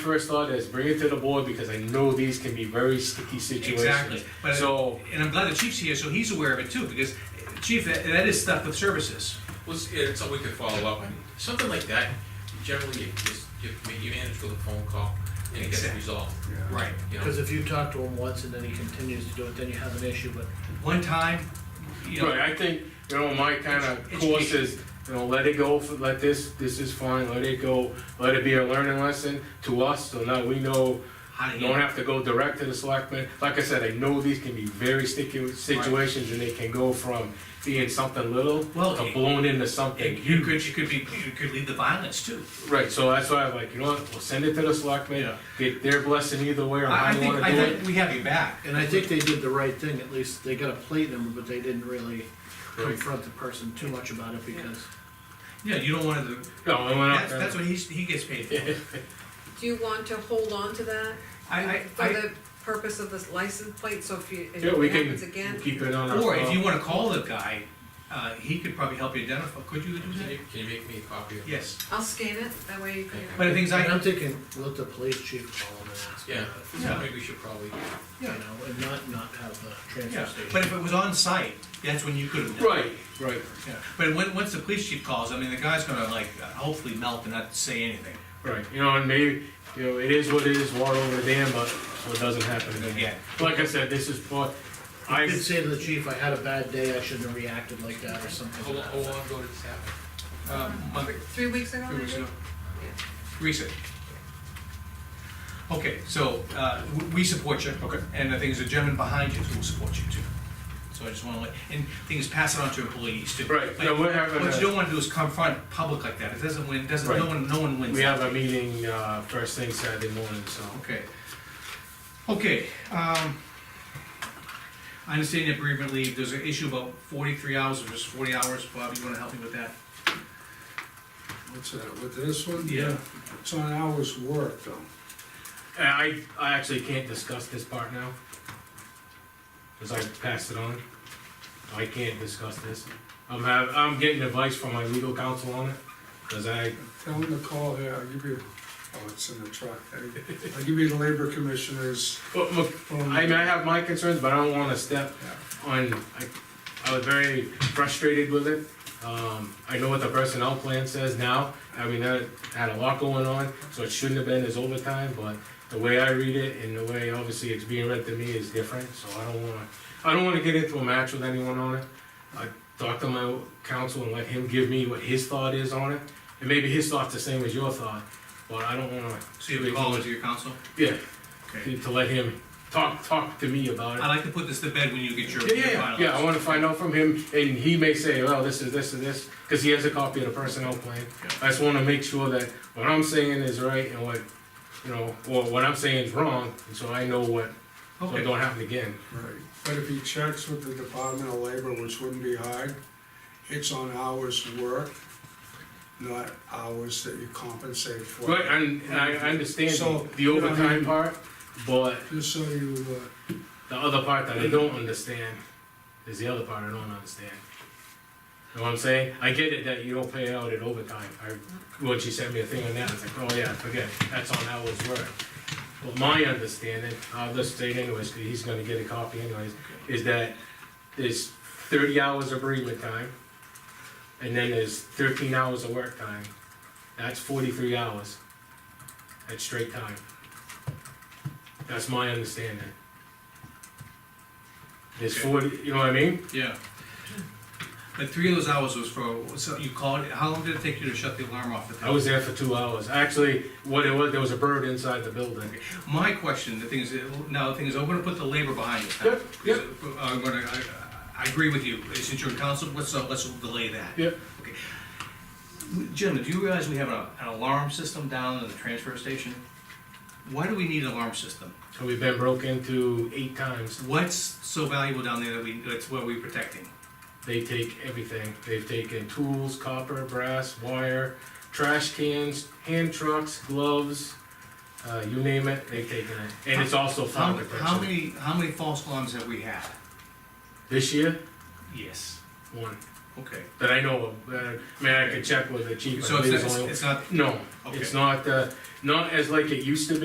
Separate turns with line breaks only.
First thought is bring it to the board because I know these can be very sticky situations.
Exactly. But-
So,
And I'm glad the chief's here, so he's aware of it too, because, uh, chief, that, that is stuff with services.
Well, it's, it's something we could follow up on. Something like that, generally, you just, you, you manage with a phone call and it gets
Exactly.
resolved,
Right.
you know?
Because if you talk to him once and then he continues to do it, then you have an issue, but
One time, you know,
right, I think, you know, my kind of
It's-
course is, you know, let it go, f- let this, this is fine, let it go, let it be a learning lesson to us, so now we know,
how to
don't
handle.
have to go direct to the selectmen. Like I said, I know these can be very sticky situations, and they can go from being something little
Well,
to
it-
blown into something
It
huge.
you could, you could be, you could lead the violence too.
Right, so that's why I'm like, you know what, we'll send it to the selectmen,
Yeah.
get their blessing either way or
I, I
how you
think,
wanna
I
do it.
think we have you back.
And I think they did the right thing, at least they got a plate number, but they didn't really confront the person too much about it because.
Yeah, you don't want to,
No, I went out
that's,
there.
that's what he's, he gets paid for.
Do you want to hold on to that?
I, I,
For
I,
the purpose of this license plate, so if you, if
Yeah, we
it
can
happens again?
keep it on our.
or if
file.
you wanna call the guy, uh, he could probably help you identify, could you do
Can you,
that?
can you make me a copy of that?
Yes,
I'll scan it, that way you can.
but the things I,
And I'm thinking, let the police chief call him and ask him
Yeah,
about it,
so maybe we should probably,
you know, and not, not have the transfer
yeah,
station.
but if it was on site, that's when you could have done. it.
Right, right,
Yeah, But when, once the police chief calls, I mean, the guy's gonna like, uh, hopefully melt and not say anything
right, you know, and maybe, you know, it is what it is, water over the dam, but so it doesn't happen again.
again.
Like I said, this is part,
I
I,
did say to the chief, I had a bad day, I shouldn't have reacted like that or something.
how
to
long,
that
how long ago did this happen?
Uh, month-
Three- Three weeks ago,
Three weeks
maybe?
ago. Recent. Okay, so, uh, w- we support you. Okay. And I think there's a gentleman behind you who will support you too. So I just wanna let, and things pass it on to employees too.
Right,
But
no, we're having
What
a-
you don't wanna do is confront public like that, it doesn't win, doesn't, no
Right.
one, no one wins.
we have a meeting, uh, first thing Saturday morning, so.
Okay. Okay, um, I understand your bereavement leave, there's an issue about forty-three hours or just forty hours, Bob, you wanna help me with that?
What's that, with this one?
Yeah.
It's on hours work though.
And I, I actually can't discuss this part now, cause I passed it on. I can't discuss this. I'm have, I'm getting advice from my legal counsel on it, cause I,
Tell them to call here, I'll give you, oh, it's in the truck. I- I'll give you the labor commissioners.
but look,
phone.
I mean, I have my concerns, but I don't wanna step
Yeah.
on, I, I was very frustrated with it. Um, I know what the personnel plan says now, I mean, that had a lot going on, so it shouldn't have been as overtime, but the way I read it and the way obviously it's being read to me is different, so I don't wanna, I don't wanna get into a match with anyone on it. I talked to my counsel and let him give me what his thought is on it, and maybe his thought's the same as your thought, but I don't wanna,
So you have a call to your council?
yeah,
Okay.
to let him talk, talk to me about it.
I like to put this to bed when you get your.
Yeah,
your
yeah,
finalized.
yeah, I wanna find out from him, and he may say, well, this is, this is this, cause he has a copy of the personnel plan. I just wanna make sure that what I'm saying is right and what, you know, or what I'm saying is wrong, and so I know what, so it
Okay,
don't happen again.
Right, but if he checks with the Department of Labor, which wouldn't be hard, it's on hours work, not hours that you compensate for.
But, and, and I understand
So,
the overtime part, but
Just so you, uh,
the other part that I don't understand is the other part I don't understand. Know what I'm saying? I get it that you don't pay out at overtime, I, when she sent me a thing on that, it's like, oh yeah, forget, it. that's on hours work. But my understanding, I'll just state anyways, 'cause he's gonna get a copy anyways, is that there's thirty hours of bereavement time, and then there's thirteen hours of work time, that's forty-three hours, that's straight time. That's my understanding. There's
Okay.
forty, you know what I mean?
yeah. But three of those hours was for, so you called, how long did it take you to shut the alarm off at that?
I was there for two hours, actually, what it was, there was a bird inside the building.
My question, the thing is, now the thing is, I'm gonna put the labor behind it. uh,
Yep, yep.
I'm gonna, I, I agree with you, since you're in council, let's, uh, let's delay that.
Yep.
Okay. Gentlemen, do you realize we have an, an alarm system down at the transfer station? Why do we need an alarm system?
So we've been broke into eight times,
What's so valuable down there that we, that's what we're protecting?
they take everything, they've taken tools, copper, brass, wire, trash cans, hand trucks, gloves, uh, you name it, they've taken it, and it's also
How,
found
how
protection.
many, how many false alarms have we had?
This year,
Yes.
one,
Okay,
that I know of. Uh, I mean, I could check with the chief. I
so
believe
it's
it's
not,
only-
it's not
No, it's not, uh, not as like it used to be.